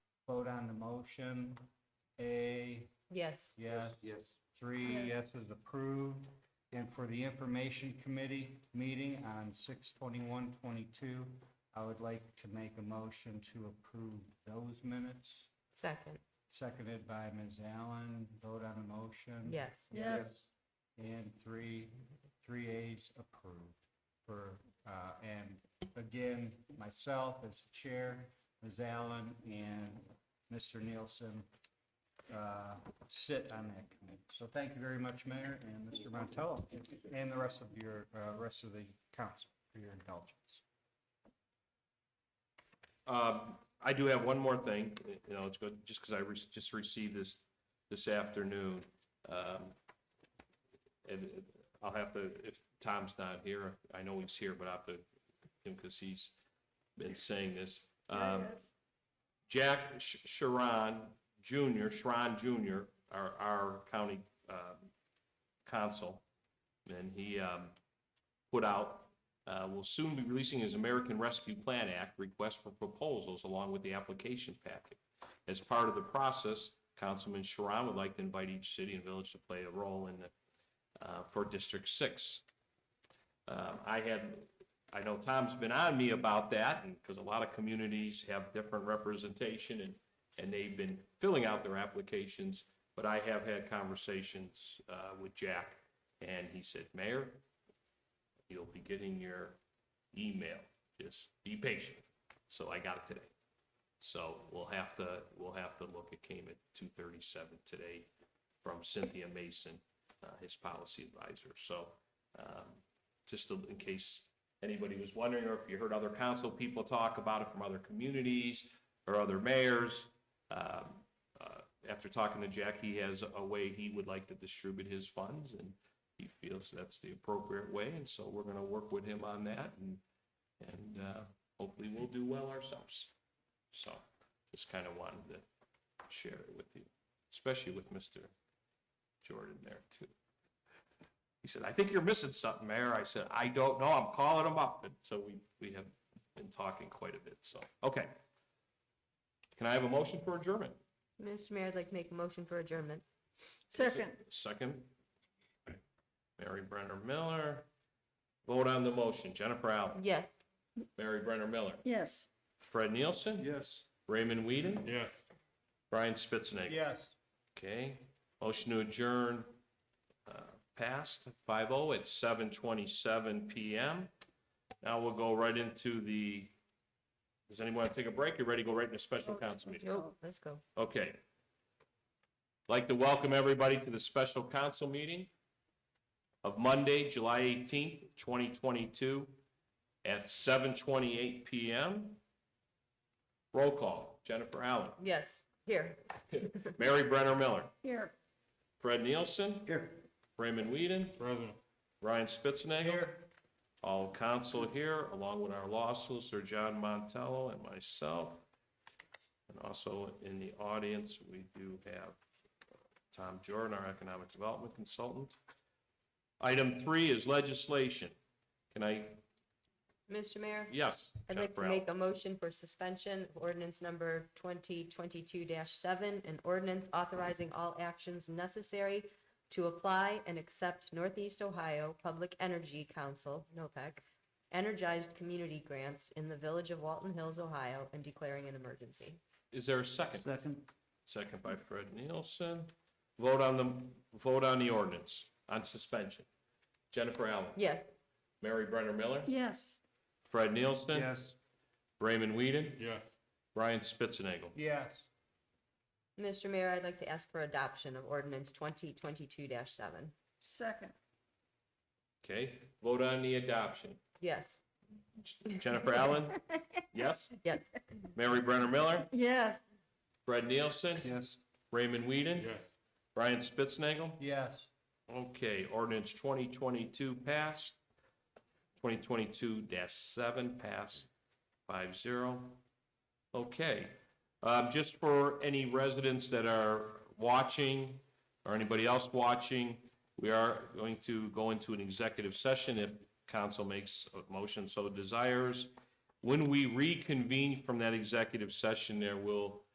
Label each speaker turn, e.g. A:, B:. A: vote on the motion. A,
B: Yes.
A: yes,
C: Yes.
A: three yeses approved. And for the Information Committee meeting on 6 22 I would like to make a motion to approve those minutes,
B: Second.
A: seconded by Ms. Allen. Vote on the motion.
B: Yes.
C: Yes.
A: And three, three A's approved for, uh, and again, myself as chair, Ms. Allen and Mr. Nielsen, uh, sit on that committee. So thank you very much, Mayor and Mr. Montello, and the rest of your, uh, rest of the council for your indulgence.
D: Um, I do have one more thing, you know, it's good, just because I re- just received this, this afternoon. Um, And I'll have to, if Tom's not here, I know he's here, but I'll have to, because he's been saying this. Um, Jack Sh- Sharon Jr., Sharon Jr., our, our county um, council, and he um, put out, uh, will soon be releasing his American Rescue Plan Act request for proposals along with the application packet. As part of the process, Councilman Sharon would like to invite each city and village to play a role in, the, uh, for District Six. Um, I had I know Tom's been on me about that, and, because a lot of communities have different representation, and, and they've been filling out their applications, but I have had conversations, uh, with Jack, and he said, Mayor, you'll be getting your email, just be patient. So I got it today. So we'll have to, we'll have to look, it came at two thirty-seven today from Cynthia Mason, uh, his policy advisor, so, um, just to- in case anybody was wondering, or if you heard other council people talk about it from other communities or other mayors. um, uh, After talking to Jack, he has a way he would like to distribute his funds, and he feels that's the appropriate way, and so we're gonna work with him on that, and, and uh, hopefully we'll do well ourselves. So, just kind of wanted to share it with you, especially with Mr. Jordan there, too. He said, I think you're missing something, Mayor. I said, I don't know. I'm calling him up. And so we, we have been talking quite a bit, so, okay. Can I have a motion for adjournment?
B: Mr. Mayor, I'd like to make a motion for adjournment.
E: Second,
D: Second. Mary Brenner Miller. Vote on the motion. Jennifer Allen,
B: Yes.
D: Mary Brenner Miller,
E: yes.
D: Fred Nielsen,
C: Yes.
D: Raymond Whedon,
C: Yes.
D: Brian Spitznagle.
A: Yes.
D: Okay, motion to adjourn, uh, passed five oh at seven twenty-seven PM. Now we'll go right into the, does anyone want to take a break? You ready to go right into special council meeting?
B: Nope, let's go.
D: Okay. Like to welcome everybody to the special council meeting of Monday, July eighteenth, twenty twenty-two at seven twenty-eight PM. Roll call, Jennifer Allen,
B: Yes, here.
D: Mary Brenner Miller,
E: Here,
D: Fred Nielsen,
A: Here.
D: Raymond Whedon,
C: President.
D: Ryan Spitznagle, all council here, along with our law solicitor, John Montello, and myself. And also in the audience, we do have Tom Jordan, our economic development consultant. Item three is legislation. Can I,
B: Mr. Mayor,
D: yes.
B: I'd like to
D: Jennifer Allen.
B: make a motion for suspension of ordinance number twenty twenty-two seven, an ordinance authorizing all actions necessary to apply and accept Northeast Ohio Public Energy Council, NOPEC, E energized community grants in the village of Walton Hills, Ohio, and declaring an emergency.
D: Is there a second?
A: Second?
D: Second by Fred Nielsen. Vote on the, vote on the ordinance on suspension. Jennifer Allen,
B: Yes.
D: Mary Brenner Miller,
E: yes.
D: Fred Nielsen.
A: Yes.
D: Raymond Whedon,
C: Yes.
D: Brian Spitznagle.
A: Yes.
B: Mr. Mayor, I'd like to ask for adoption of ordinance twenty twenty-two seven.
E: Second,
D: Okay, vote on the adoption.
B: Yes,
D: Jennifer Allen? Yes.
B: yes,
D: Mary Brenner Miller?
E: yes.
D: Fred Nielsen?
A: Yes.
D: Raymond Whedon?
C: Yes.
D: Brian Spitznagle?
A: Yes.
D: Okay, ordinance twenty twenty-two passed. Twenty twenty-two seven passed five zero. Okay, um, just for any residents that are watching or anybody else watching, we are going to go into an executive session if council makes a motion so desires. When we reconvene from that executive session, there will